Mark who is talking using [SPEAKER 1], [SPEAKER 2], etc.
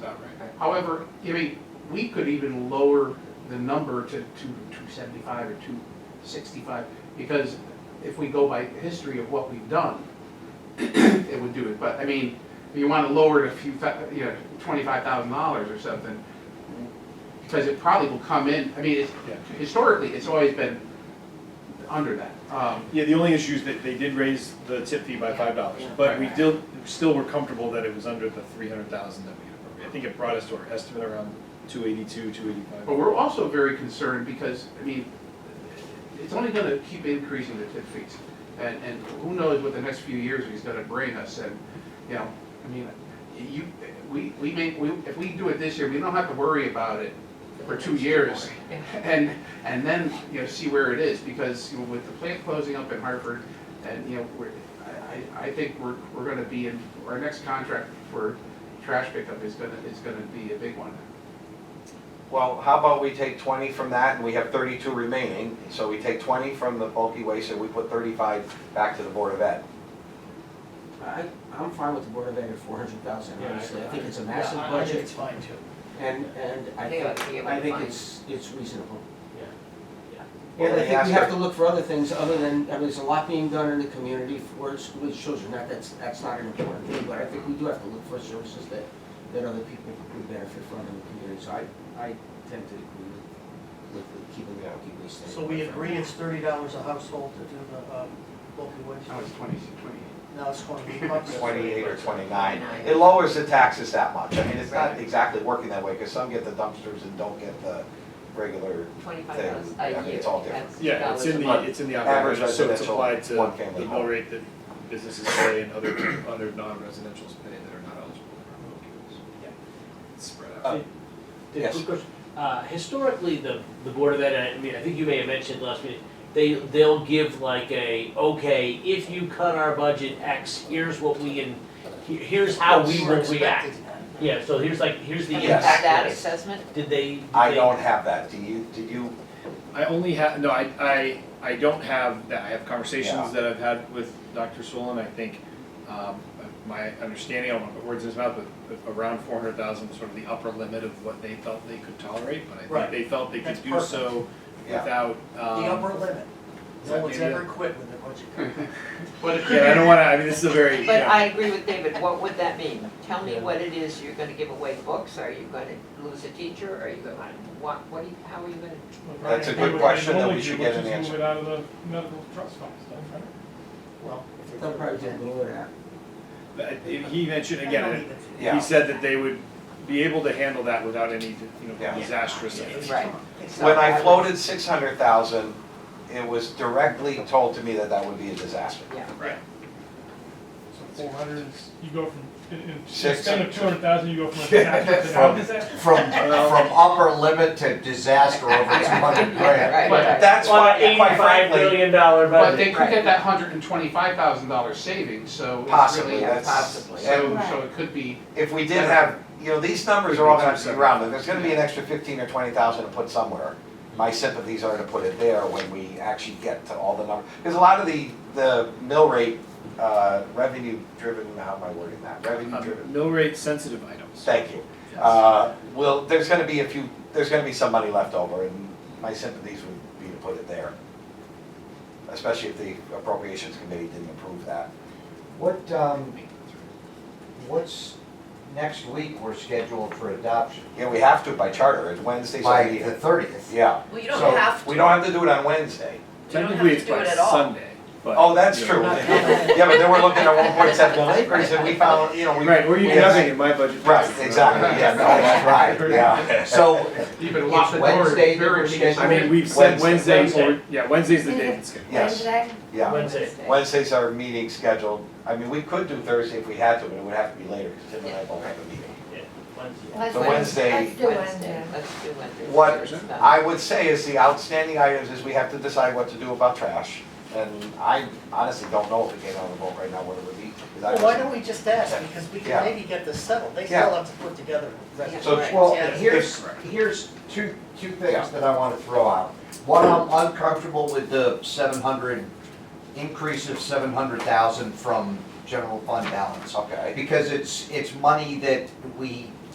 [SPEAKER 1] not right.
[SPEAKER 2] However, I mean, we could even lower the number to two, two seventy-five or two sixty-five, because if we go by history of what we've done, it would do it, but, I mean, if you wanna lower it a few, thou- you know, twenty-five thousand dollars or something, because it probably will come in, I mean, it's,
[SPEAKER 1] Yeah.
[SPEAKER 2] historically, it's always been under that. Um,
[SPEAKER 3] Yeah, the only issue is that they did raise the tip fee by five dollars, but we still, still were comfortable that it was under the three hundred thousand that we had appropriated. I think it brought us to our estimate around two eighty-two, two
[SPEAKER 2] But
[SPEAKER 3] eighty-five.
[SPEAKER 2] we're also very concerned because, I mean, it's only gonna keep increasing the tip fees. And, and who knows what the next few years is gonna bring us and, you know, I mean, you, we, we may, we, if we do it this year, we don't have to worry about it for two years. And, and then, you know, see where it is because, you know, with the plant closing up in Hartford and, you know, we're, I, I, I think we're, we're gonna be in, our next contract for trash pickup is gonna, is gonna be a big one.
[SPEAKER 4] Well, how about we take 20 from that, and we have 32 remaining, so we take 20 from the bulky waste, and we put 35 back to the Board of Ed.
[SPEAKER 5] I, I'm fine with the Board of Ed at four hundred thousand,
[SPEAKER 1] Yeah, I-
[SPEAKER 5] honestly, I think it's a
[SPEAKER 1] Yeah,
[SPEAKER 5] massive
[SPEAKER 1] I- I think
[SPEAKER 5] budget,
[SPEAKER 1] it's fine too.
[SPEAKER 5] and, and I
[SPEAKER 6] I think
[SPEAKER 5] think,
[SPEAKER 6] it would be a
[SPEAKER 5] I think
[SPEAKER 6] fine.
[SPEAKER 5] it's, it's reasonable.
[SPEAKER 1] Yeah.
[SPEAKER 4] Yeah.
[SPEAKER 5] And I
[SPEAKER 4] Well,
[SPEAKER 5] think
[SPEAKER 4] they
[SPEAKER 5] we have
[SPEAKER 4] asked
[SPEAKER 5] to look for other things other than, I mean, there's a lot being done in the community for school age children, not that's, that's not an important thing, but I think we do have to look for services that, that other people would benefit from in the community, so I, I tend to agree with, with the keeping the bulky waste thing.
[SPEAKER 7] So we agree it's thirty dollars a household to do the um, bulky
[SPEAKER 2] Now
[SPEAKER 7] waste?
[SPEAKER 2] it's twenty, twenty-eight.
[SPEAKER 7] Now it's twenty-eight bucks?
[SPEAKER 4] 28 or 29. It lowers the taxes that much. I mean, it's not exactly working that way, because some get the dumpsters and don't get the regular
[SPEAKER 6] Twenty-five
[SPEAKER 4] thing.
[SPEAKER 6] dollars
[SPEAKER 4] I
[SPEAKER 6] a
[SPEAKER 4] mean,
[SPEAKER 6] year.
[SPEAKER 4] It's all different.
[SPEAKER 6] That's
[SPEAKER 3] Yeah, it's in
[SPEAKER 6] $2 a
[SPEAKER 3] the,
[SPEAKER 6] month.
[SPEAKER 3] it's in the
[SPEAKER 4] Average
[SPEAKER 3] operating budget, so it's
[SPEAKER 4] residential,
[SPEAKER 3] applied to
[SPEAKER 4] one-family
[SPEAKER 3] the mill
[SPEAKER 4] home.
[SPEAKER 3] rate that businesses pay and other, other non-residentials pay that are not eligible for remote use.
[SPEAKER 1] Yeah.
[SPEAKER 3] It's spread
[SPEAKER 4] Uh,
[SPEAKER 3] out.
[SPEAKER 4] Yes.
[SPEAKER 1] Quick question. Uh, historically, the, the Board of Ed, and I mean, I think you may have mentioned last meeting, they, they'll give like a, okay, if you cut our budget X, here's what we can, he- here's how we will react. Yeah, so here's like, here's the
[SPEAKER 6] And
[SPEAKER 4] Yes.
[SPEAKER 6] you have that
[SPEAKER 1] impact.
[SPEAKER 6] assessment?
[SPEAKER 1] Did they? did
[SPEAKER 4] I
[SPEAKER 1] they-
[SPEAKER 4] don't have that. Do you, did you?
[SPEAKER 3] I only have, no, I, I, I don't have that, I have
[SPEAKER 4] Yeah.
[SPEAKER 3] conversations that I've had with Dr. Swollen, I think, um, my understanding, I don't wanna put words in his mouth, but but around four hundred thousand was sort of the upper limit of what they felt they could tolerate, but I
[SPEAKER 7] Right.
[SPEAKER 3] think they felt they
[SPEAKER 7] That's
[SPEAKER 3] could do
[SPEAKER 7] perfect.
[SPEAKER 3] so
[SPEAKER 4] Yeah.
[SPEAKER 3] without,
[SPEAKER 7] The
[SPEAKER 3] um.
[SPEAKER 7] upper limit.
[SPEAKER 3] is
[SPEAKER 7] No
[SPEAKER 3] that
[SPEAKER 7] one's
[SPEAKER 3] maybe
[SPEAKER 7] ever
[SPEAKER 3] a-
[SPEAKER 7] quit with a budget.
[SPEAKER 2] But it could
[SPEAKER 3] Yeah, I don't wanna, I mean, this is a very,
[SPEAKER 6] But
[SPEAKER 3] yeah,
[SPEAKER 6] I agree with David, what would that mean? Tell me
[SPEAKER 3] Yeah.
[SPEAKER 6] what it is, you're gonna give away books, are you gonna lose a teacher, are you gonna, what, what, do you- how are you gonna?
[SPEAKER 4] That's a good question that we should get an answer.
[SPEAKER 8] Which is move it out of the medical trust funds, don't you?
[SPEAKER 7] Well, if they're-
[SPEAKER 5] They'll probably do a little bit of that.
[SPEAKER 3] but he mentioned
[SPEAKER 7] I
[SPEAKER 3] again,
[SPEAKER 7] don't
[SPEAKER 3] it-
[SPEAKER 7] even-
[SPEAKER 4] Yeah.
[SPEAKER 3] he said that they would be able to handle that without any, you know,
[SPEAKER 4] Yeah.
[SPEAKER 3] disastrous.
[SPEAKER 6] Right. So
[SPEAKER 4] When I
[SPEAKER 6] would-
[SPEAKER 4] floated 600,000, it was directly told to me that that would be a disaster.
[SPEAKER 6] Yeah,
[SPEAKER 3] Right.
[SPEAKER 8] So four hundred is, you go from, in, in,
[SPEAKER 4] Six.
[SPEAKER 8] instead of two hundred thousand, you go from a
[SPEAKER 4] Yeah,
[SPEAKER 8] disaster to
[SPEAKER 4] from-
[SPEAKER 8] non-disaster.
[SPEAKER 4] From, from upper limit to disaster over 200 grand.
[SPEAKER 6] right,
[SPEAKER 2] But
[SPEAKER 6] right.
[SPEAKER 4] That's
[SPEAKER 1] On an
[SPEAKER 4] why, quite
[SPEAKER 1] eighty-five
[SPEAKER 4] frankly,
[SPEAKER 1] million dollar
[SPEAKER 2] But
[SPEAKER 1] budget.
[SPEAKER 2] they could get that hundred and twenty-five thousand dollar savings, so it's
[SPEAKER 4] possibly,
[SPEAKER 2] really,
[SPEAKER 6] Yeah,
[SPEAKER 4] that's,
[SPEAKER 6] possibly.
[SPEAKER 4] and
[SPEAKER 2] so, so it could be,
[SPEAKER 4] if we did have, you know, these numbers are all gonna have to be rounded, there's gonna be an extra fifteen or twenty thousand to put somewhere. My sympathies are to put it there when we actually get to all the numbers, because a lot of the, the mill rate, uh, revenue driven, how am I wording that,
[SPEAKER 9] Uh,
[SPEAKER 4] revenue
[SPEAKER 3] Um,
[SPEAKER 4] driven,
[SPEAKER 3] Mill rate sensitive items.
[SPEAKER 4] thank you.
[SPEAKER 3] Yes.
[SPEAKER 4] Uh, well, there's gonna be a few, there's gonna be some money left over, and my sympathies would be to put it there. Especially if the appropriations committee didn't approve that.
[SPEAKER 9] What, um, what's, next week, we're scheduled for adoption,
[SPEAKER 4] Yeah, we have to by charter, it's Wednesday's our
[SPEAKER 9] by the
[SPEAKER 4] meeting.
[SPEAKER 9] thirtieth.
[SPEAKER 4] Yeah.
[SPEAKER 10] Well, you don't
[SPEAKER 4] So,
[SPEAKER 10] have to.
[SPEAKER 4] We don't have to do it on Wednesday.
[SPEAKER 3] Technically,
[SPEAKER 10] have
[SPEAKER 3] it's
[SPEAKER 10] to do
[SPEAKER 3] by
[SPEAKER 10] it at all.
[SPEAKER 3] Sunday, but.
[SPEAKER 4] Oh, that's
[SPEAKER 3] Yeah.
[SPEAKER 4] true. Yeah, but then we're looking at one point seven million acres and we found, you know, we.
[SPEAKER 3] Right, or you can
[SPEAKER 4] Yes.
[SPEAKER 3] have it in my budget.
[SPEAKER 4] Right, exactly, yeah, no, that's right, yeah.
[SPEAKER 9] So,
[SPEAKER 2] you could lock the
[SPEAKER 9] It's
[SPEAKER 2] door, it's
[SPEAKER 9] Wednesday that
[SPEAKER 2] very
[SPEAKER 9] we're
[SPEAKER 2] dangerous.
[SPEAKER 3] I mean, we've said
[SPEAKER 4] Wednesday.
[SPEAKER 3] Wednesday, or, yeah, Wednesday's the day that's scheduled.
[SPEAKER 4] Yes, yeah.
[SPEAKER 1] Wednesday.
[SPEAKER 4] Wednesday's our meeting scheduled. I mean, we could do Thursday if we had to, but it would have to be later because Tim and I both have a meeting.
[SPEAKER 1] Wednesday.
[SPEAKER 4] So Wednesday,
[SPEAKER 6] Wednesday, let's do Wednesday.
[SPEAKER 4] What
[SPEAKER 6] There's some-
[SPEAKER 4] I would say is the outstanding items is we have to decide what to do about trash. And I honestly don't know if it came out of the vote right now, what it would be. 'cause I
[SPEAKER 7] Well,
[SPEAKER 4] was-
[SPEAKER 7] why don't we just ask, because we
[SPEAKER 4] Yeah.
[SPEAKER 7] can maybe get this settled, they
[SPEAKER 4] Yeah.
[SPEAKER 7] still have to put together a resolution.
[SPEAKER 4] So,
[SPEAKER 6] Right.
[SPEAKER 9] well,
[SPEAKER 7] Yeah.
[SPEAKER 9] here's, here's two, two things that I wanna throw out. One, I'm uncomfortable with the seven hundred, increase of seven hundred thousand from general fund balance.
[SPEAKER 4] Okay.
[SPEAKER 9] Because it's, it's money that we